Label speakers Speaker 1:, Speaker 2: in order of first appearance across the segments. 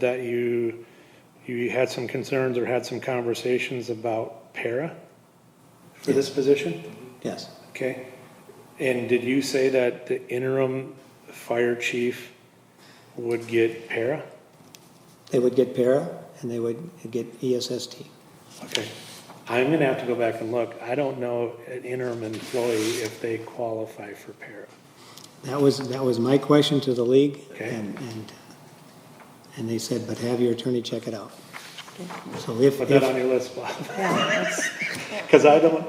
Speaker 1: that you, you had some concerns or had some conversations about para for this position?
Speaker 2: Yes,
Speaker 1: Okay. And did you say that the interim fire chief would get para?
Speaker 2: they would get para and they would get E ESST.
Speaker 1: Okay. I'm gonna have to go back and look. I don't know an interim employee if they qualify for para.
Speaker 2: That was, that was my question to the league.
Speaker 1: Okay.
Speaker 2: And, and, uh, and they said, but have your attorney check it out. So if,
Speaker 1: Put that on
Speaker 2: if,
Speaker 1: your list, Bob.
Speaker 3: Yeah, that's,
Speaker 1: Because I don't,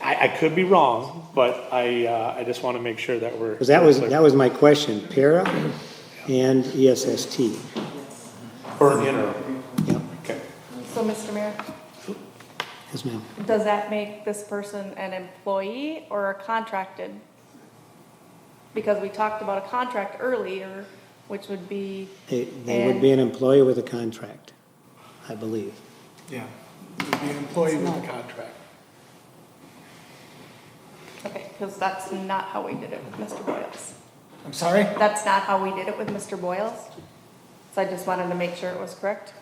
Speaker 1: I, I could be wrong, but I, uh, I just want to make sure that we're.
Speaker 2: because that was, that was my question, para and E ESST.
Speaker 1: Or an interim.
Speaker 2: Yep,
Speaker 1: Okay.
Speaker 3: so Mr. Mayor,
Speaker 2: yes ma'am.
Speaker 3: does that make this person an employee or a contracted? Because we talked about a contract earlier, which would be,
Speaker 2: They, they would be an employee with a contract, I believe.
Speaker 4: Yeah, it would be an employee with a contract.
Speaker 3: okay, because that's not how we did it with Mr. Boyles.
Speaker 4: I'm sorry?
Speaker 3: That's not how we did it with Mr. Boyles. So I just wanted to make sure it was correct.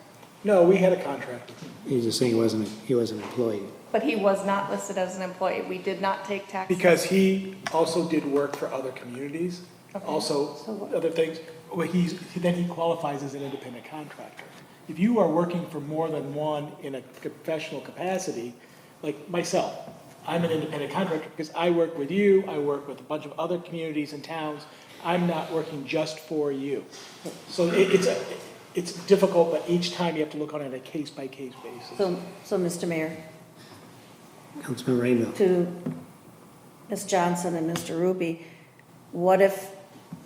Speaker 4: No, we had a contract.
Speaker 2: He's just saying he wasn't, he was an employee.
Speaker 3: But he was not listed as an employee. We did not take taxes.
Speaker 4: Because he also did work for other communities, also other things. Well, he's, then he qualifies as an independent contractor. If you are working for more than one in a professional capacity, like myself, I'm an independent contractor because I work with you, I work with a bunch of other communities and towns. I'm not working just for you. So it, it's, a- it's difficult, but each time you have to look on it a case-by-case basis.
Speaker 5: So, so Mr. Mayor,
Speaker 2: Councilman Rainville,
Speaker 5: to Ms. Johnson and Mr. Ruby, what if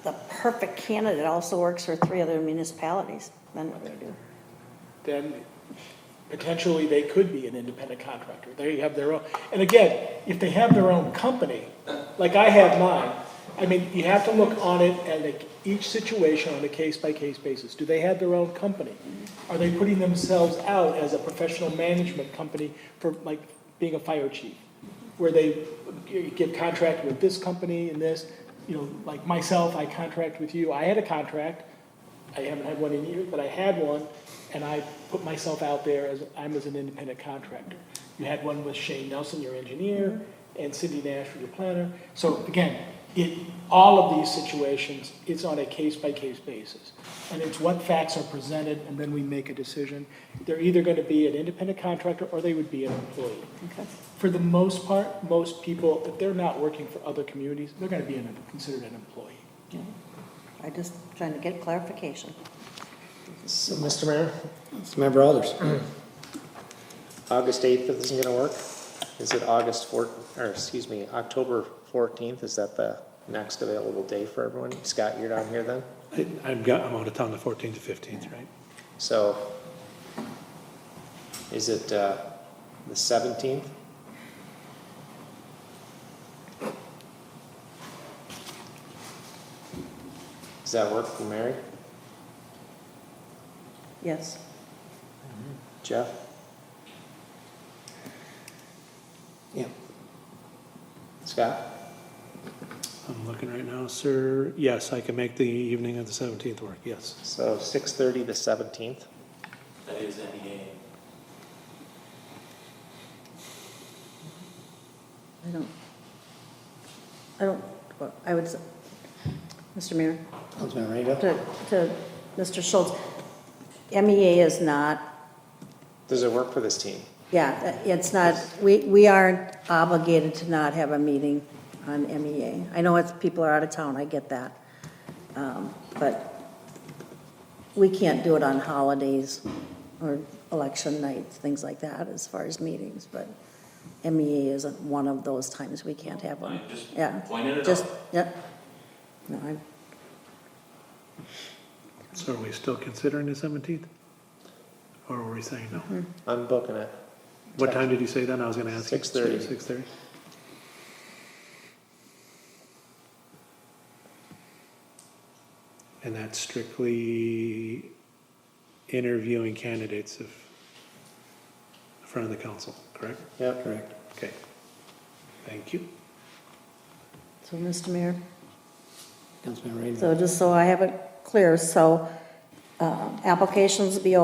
Speaker 5: the perfect candidate also works for three other municipalities? Then what do they do?
Speaker 4: then potentially they could be an independent contractor. They have their own, and again, if they have their own company, like I have mine, I mean, you have to look on it at a- each situation on a case-by-case basis. Do they have their own company? Are they putting themselves out as a professional management company for like being a fire chief? Where they get contract with this company and this, you know, like myself, I contract with you, I had a contract, I haven't had one in years, but I had one, and I put myself out there as, I'm as an independent contractor. You had one with Shane Nelson, your engineer, and Cindy Nash, your planner. So again, it, all of these situations, it's on a case-by-case basis. And it's what facts are presented, and then we make a decision. They're either gonna be an independent contractor, or they would be an employee.
Speaker 5: Okay.
Speaker 4: For the most part, most people, if they're not working for other communities, they're gonna be an- considered an employee.
Speaker 5: I just trying to get clarification.
Speaker 6: So, Mr. Mayor,
Speaker 2: member Alders.
Speaker 6: August 8th isn't going to work? Is it August 4, or excuse me, October 14th? Is that the next available day for everyone? Scott, you're down here then?
Speaker 1: I- I've got, I'm out of town the fourteenth to fifteenth, right?
Speaker 6: So is it uh, the 17th? Does that work for Mary?
Speaker 5: Yes.
Speaker 6: Jeff?
Speaker 2: Yeah,
Speaker 6: Scott?
Speaker 1: I'm looking right now, sir. Yes, I can make the evening of the seventeenth work, yes.
Speaker 6: So 6:30 to 17th?
Speaker 7: That is any game.
Speaker 5: I don't, I don't, well, I would, s- Mr. Mayor,
Speaker 2: Councilman Rainville.
Speaker 5: to, to Mr. Schultz, MEA is not
Speaker 6: Does it work for this team?
Speaker 5: Yeah, it's not, we, we aren't obligated to not have a meeting on MEA. I know it's, people are out of town, I get that. Um, But we can't do it on holidays or election nights, things like that, as far as meetings, but MEA isn't one of those times we can't have one.
Speaker 7: I just
Speaker 5: Yeah,
Speaker 7: pointed it
Speaker 5: just,
Speaker 7: out.
Speaker 5: yep. No, I'm,
Speaker 1: So are we still considering the seventeenth? Or were we saying no?
Speaker 6: I'm booking it.
Speaker 1: What time did you say then? I was gonna ask.
Speaker 6: 6:30.
Speaker 1: Six thirty? And that's strictly interviewing candidates of, in front of the council, correct?
Speaker 6: Yep.
Speaker 2: Correct.
Speaker 1: Okay. Thank you.
Speaker 5: so, Mr. Mayor?
Speaker 2: Councilman Rainville.
Speaker 5: So just so I have it clear, so uh, applications will be